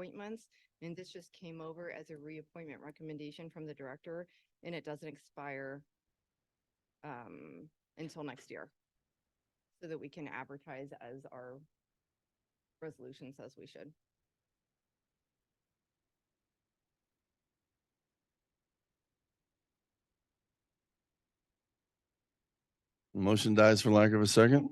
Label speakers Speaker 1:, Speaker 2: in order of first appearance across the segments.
Speaker 1: appointments. And this just came over as a reappointment recommendation from the director and it doesn't expire um, until next year. So that we can advertise as our resolution says we should.
Speaker 2: Motion dies for lack of a second.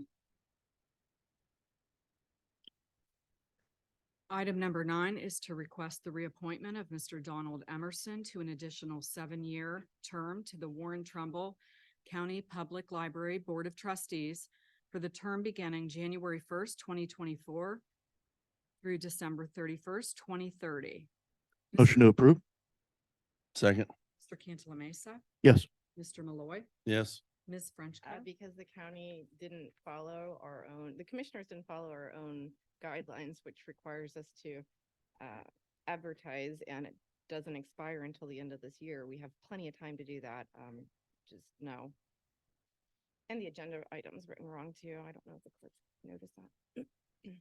Speaker 3: Item number nine is to request the reappointment of Mr. Donald Emerson to an additional seven-year term to the Warren Trumbull County Public Library Board of Trustees for the term beginning January first, twenty twenty-four through December thirty-first, twenty thirty.
Speaker 4: Motion to approve?
Speaker 2: Second.
Speaker 3: Mr. Cantala Mesa,
Speaker 4: Yes.
Speaker 3: Mr. Malloy,
Speaker 2: Yes.
Speaker 3: Ms.
Speaker 1: Uh,
Speaker 3: Frenchco.
Speaker 1: because the county didn't follow our own, the commissioners didn't follow our own guidelines, which requires us to uh, advertise and it doesn't expire until the end of this year. We have plenty of time to do that, um, just no. And the agenda item's written wrong too. I don't know if the clerk noticed that.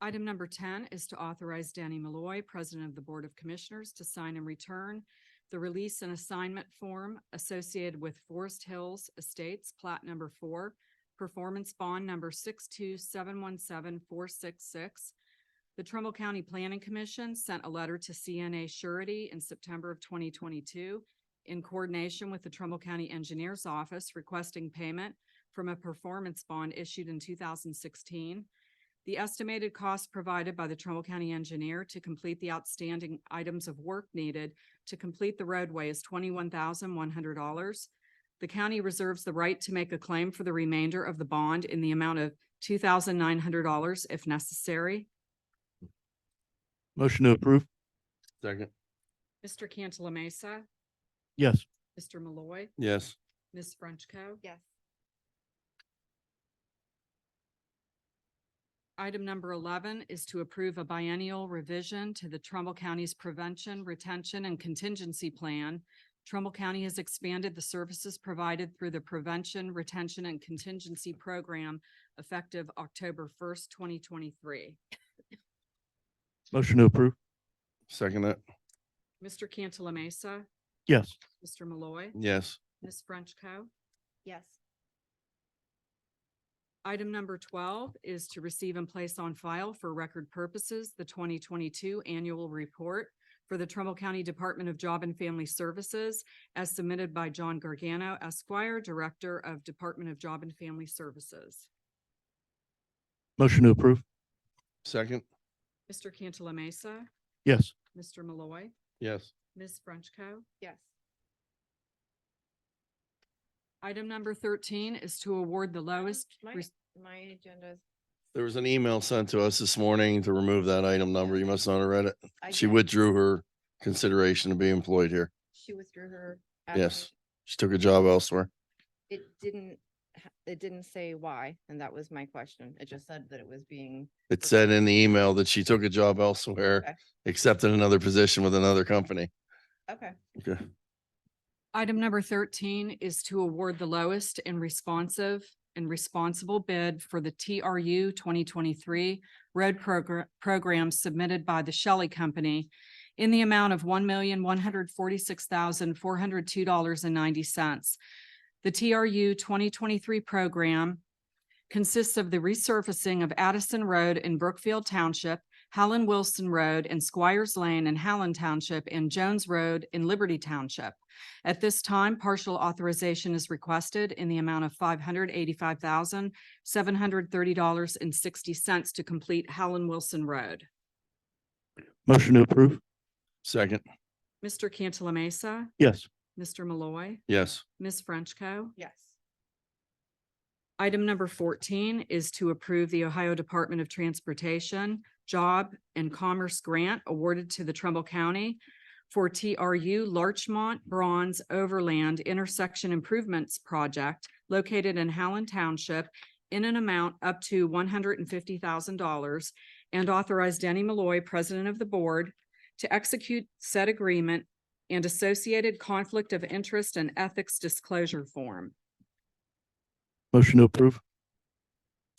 Speaker 3: Item number ten is to authorize Danny Malloy, President of the Board of Commissioners, to sign and return the release and assignment form associated with Forest Hills Estates Plat Number Four, Performance Bond Number six-two-seven-one-seven-four-six-six. The Trumbull County Planning Commission sent a letter to CNA Surety in September of twenty twenty-two in coordination with the Trumbull County Engineers Office requesting payment from a performance bond issued in two thousand sixteen the estimated cost provided by the Trumbull County engineer to complete the outstanding items of work needed to complete the roadway is twenty-one thousand one hundred dollars. The county reserves the right to make a claim for the remainder of the bond in the amount of two thousand nine hundred dollars if necessary.
Speaker 4: Motion to approve?
Speaker 2: Second.
Speaker 3: Mr. Cantala Mesa,
Speaker 4: Yes.
Speaker 3: Mr. Malloy,
Speaker 2: Yes.
Speaker 3: Ms. Frenchco.
Speaker 1: Yes.
Speaker 3: Item number eleven is to approve a biennial revision to the Trumbull County's Prevention, Retention, and Contingency Plan. Trumbull County has expanded the services provided through the Prevention, Retention, and Contingency Program effective October first, twenty twenty-three.
Speaker 4: Motion to approve?
Speaker 2: Second that.
Speaker 3: Mr. Cantala Mesa,
Speaker 4: Yes.
Speaker 3: Mr. Malloy,
Speaker 2: Yes.
Speaker 3: Ms. Frenchco.
Speaker 1: Yes.
Speaker 3: Item number twelve is to receive and place on file for record purposes the twenty twenty-two annual report for the Trumbull County Department of Job and Family Services as submitted by John Gargano Esquire, Director of Department of Job and Family Services.
Speaker 4: Motion to approve?
Speaker 2: Second.
Speaker 3: Mr. Cantala Mesa,
Speaker 4: Yes.
Speaker 3: Mr. Malloy,
Speaker 2: Yes.
Speaker 3: Ms. Frenchco.
Speaker 1: Yes.
Speaker 3: Item number thirteen is to award the lowest.
Speaker 1: Um, My,
Speaker 3: res-
Speaker 1: my agenda is.
Speaker 2: There was an email sent to us this morning to remove that item number. You must not have read it.
Speaker 1: I
Speaker 2: She
Speaker 1: did-
Speaker 2: withdrew her consideration to be employed here.
Speaker 1: She withdrew her.
Speaker 2: Yes.
Speaker 1: application.
Speaker 2: She took a job elsewhere.
Speaker 1: It didn't, ha- it didn't say why, and that was my question. It just said that it was being
Speaker 2: It said in the email that she took a job
Speaker 1: Okay.
Speaker 2: elsewhere, accepted another position with another company.
Speaker 1: Okay,
Speaker 2: Okay.
Speaker 3: Item number thirteen is to award the lowest and responsive and responsible bid for the TRU twenty twenty-three road program, program submitted by the Shelley Company in the amount of one million, one hundred forty-six thousand, four hundred two dollars and ninety cents. The TRU twenty twenty-three program consists of the resurfacing of Addison Road in Brookfield Township, Howland Wilson Road and Squires Lane in Howland Township and Jones Road in Liberty Township. At this time, partial authorization is requested in the amount of five hundred eighty-five thousand, seven hundred thirty dollars and sixty cents to complete Howland Wilson Road.
Speaker 4: Motion to approve?
Speaker 2: Second.
Speaker 3: Mr. Cantala Mesa,
Speaker 4: Yes.
Speaker 3: Mr. Malloy,
Speaker 2: Yes.
Speaker 3: Ms. Frenchco.
Speaker 1: yes.
Speaker 3: Item number fourteen is to approve the Ohio Department of Transportation Job and Commerce Grant awarded to the Trumbull County for TRU Larchmont Bronze Overland Intersection Improvements Project located in Howland Township in an amount up to one hundred and fifty thousand dollars and authorize Denny Malloy, President of the Board, to execute said agreement and associated conflict of interest and ethics disclosure form.
Speaker 4: Motion to approve?